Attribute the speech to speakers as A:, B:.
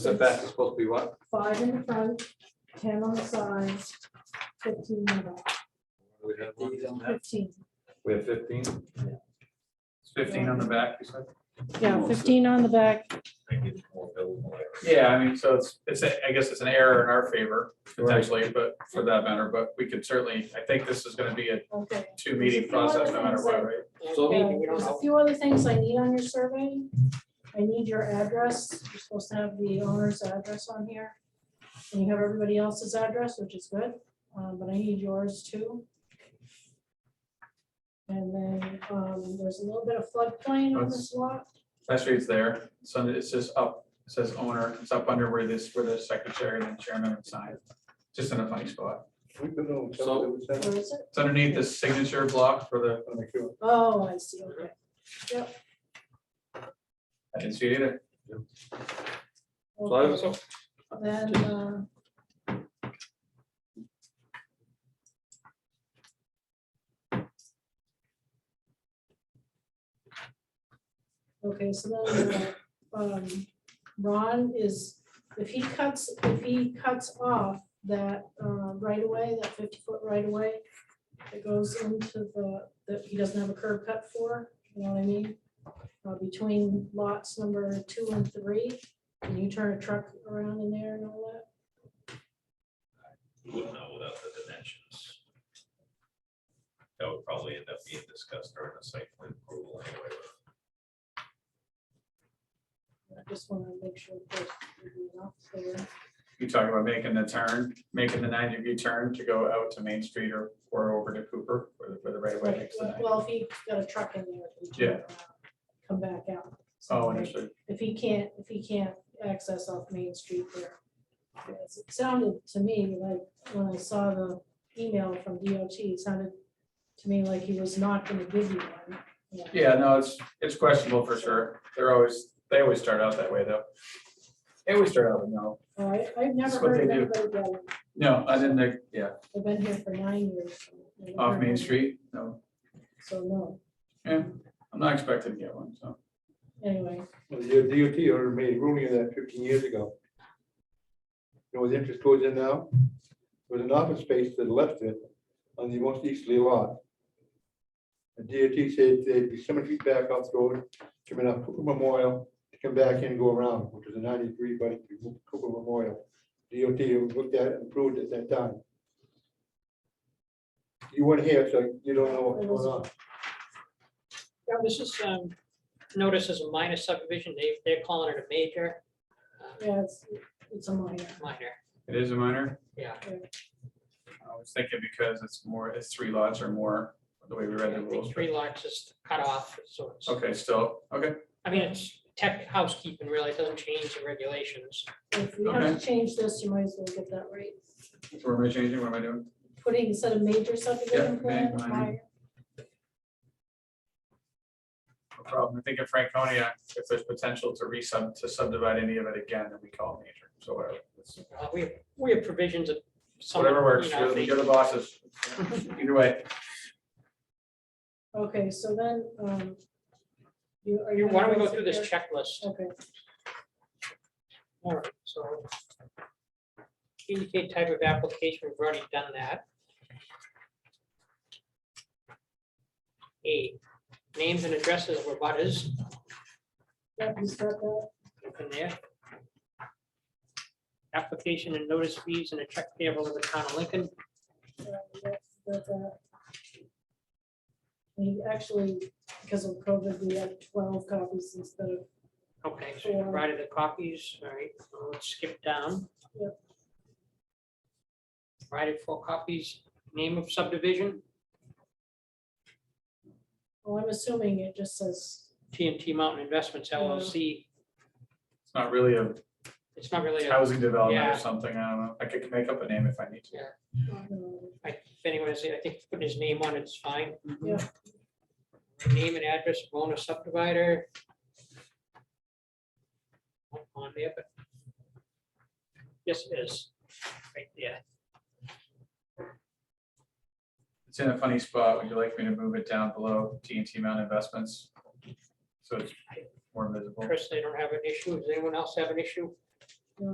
A: Setback is supposed to be what?
B: five in the front, ten on the sides, fifteen in the back,
A: We have one.
B: fifteen.
A: We have fifteen? It's Fifteen on the back, you said?
B: Yeah, fifteen on the back,
C: Yeah, I mean, so it's, it's, a- I guess it's an error in our favor potentially, but for that matter, but we could certainly, I think this is gonna be a
B: okay.
C: two meeting process no matter what, right?
A: So-
B: Uh, There's a few other things I need on your survey. I need your address. You're supposed to have the owner's address on here. And you have everybody else's address, which is good, uh, but I need yours too. And then um, there's a little bit of floodplain on this lot.
C: Last read's there, so it's just up, it says owner, it's up under where this, where the secretary and the chairman would sign. Just in a funny spot.
A: So,
B: Where is it?
C: It's underneath this signature block for the,
B: Oh, I see, okay.
C: I didn't see it either.
A: so I was-
B: Then, uh, Okay, so then, uh, um, Ron is, if he cuts, if he cuts off that, uh, right away, that fifty foot right away, that goes into the, that he doesn't have a curb cut for, you know what I mean? Uh, between lots number two and three, can you turn a truck around in there and all that?
D: You wouldn't know without the dimensions. That would probably end up being discussed during the site plan approval anyway.
B: I just want to make sure that we're not there.
C: You talk about making the turn, making the ninety degree turn to go out to Main Street or, or over to Cooper for the, for the right of way. next to that.
B: Well, if he got a truck in there. he can, uh, Come back out.
C: Oh, understood.
B: If he can't, if he can't access off Main Street there. Yes, It sounded to me like, when I saw the email from DOT, it sounded to me like he was not going to give you one.
C: Yeah, no, it's, it's questionable for sure. They're always, they always start out that way though. They always start out with no.
B: All right, Oh, I've never
C: That's what
B: heard of
C: they do.
B: anybody get one.
C: No, I didn't, think- yeah,
B: I've been here for nine years. I've never
C: off
B: heard
C: Main
B: of
C: Street, no,
B: it, So no,
C: yeah, I'm not expecting to get one, so.
B: anyway,
E: Well, Your DOT order made ruling on that fifteen years ago. You know what the interest goes in now? There was an office space that left it on the most easterly lot. The DOT said they'd be so many feet back off the road, coming up Cooper Memorial, to come back in and go around, which is a ninety-three, but it's Cooper Memorial. DOT looked at it and approved it at that time. You weren't here, so you don't know what's going on.
F: Yeah, this is, um, notice as a minor subdivision, they, they're calling it a major, uh,
B: yeah, it's, it's a minor.
F: minor,
C: It is a minor?
F: yeah.
C: I was thinking because it's more, it's three lots or more, the way we
F: I
C: read the rules.
F: think Three lots is cut off, so it's,
C: Okay, still, okay,
F: I mean, it's tech housekeeping really, it doesn't change the regulations.
B: If you have to change this, you might as well get that right.
C: so what am I changing, what am I doing?
B: Putting instead of major subdivision
C: Yeah,
B: plan,
C: minor.
B: minor.
C: No problem, I think in Franconia, if there's potential to resub, to subdivide any of it again, then we call it major, so whatever. It's-
F: Uh, We, have- we have provisions of. some,
C: Whatever works,
F: you know,
C: you're the-
F: they-
C: you're the bosses, either way,
B: Okay, so then, um. you- are you
F: you- Why don't we go
B: gonna
F: through this
B: sit
F: checklist?
B: there? Okay,
F: All right, so. Indicate type of application, we've already done that. Eight, names and addresses of abutters.
B: yeah, you start that. uh,
F: open there. Application and notice fees and a check payable to the town of Lincoln.
B: uh, that's- that's, uh, We actually, because of COVID, we have twelve copies instead of,
F: Okay, so you provided the copies, all right, so let's skip down.
B: Yep.
F: Provided four copies, name of subdivision,
B: well, I'm assuming it just says,
F: TNT Mountain Investments LLC.
C: it's not really a
F: It's not really, a-
C: housing development
F: Yeah.
C: or something, I don't know, I could make up a name if I need to.
B: um,
F: I- if anyone is, I think putting his name on it's fine.
B: Yeah.
F: Name and address of owner subdivider. Not On there, but. Yes, it is. Right there.
C: It's in a funny spot. Would you like me to move it down below TNT Mount Investments? So it's more visible. Oh.
F: Chris, they don't have an issue. Does anyone else have an issue?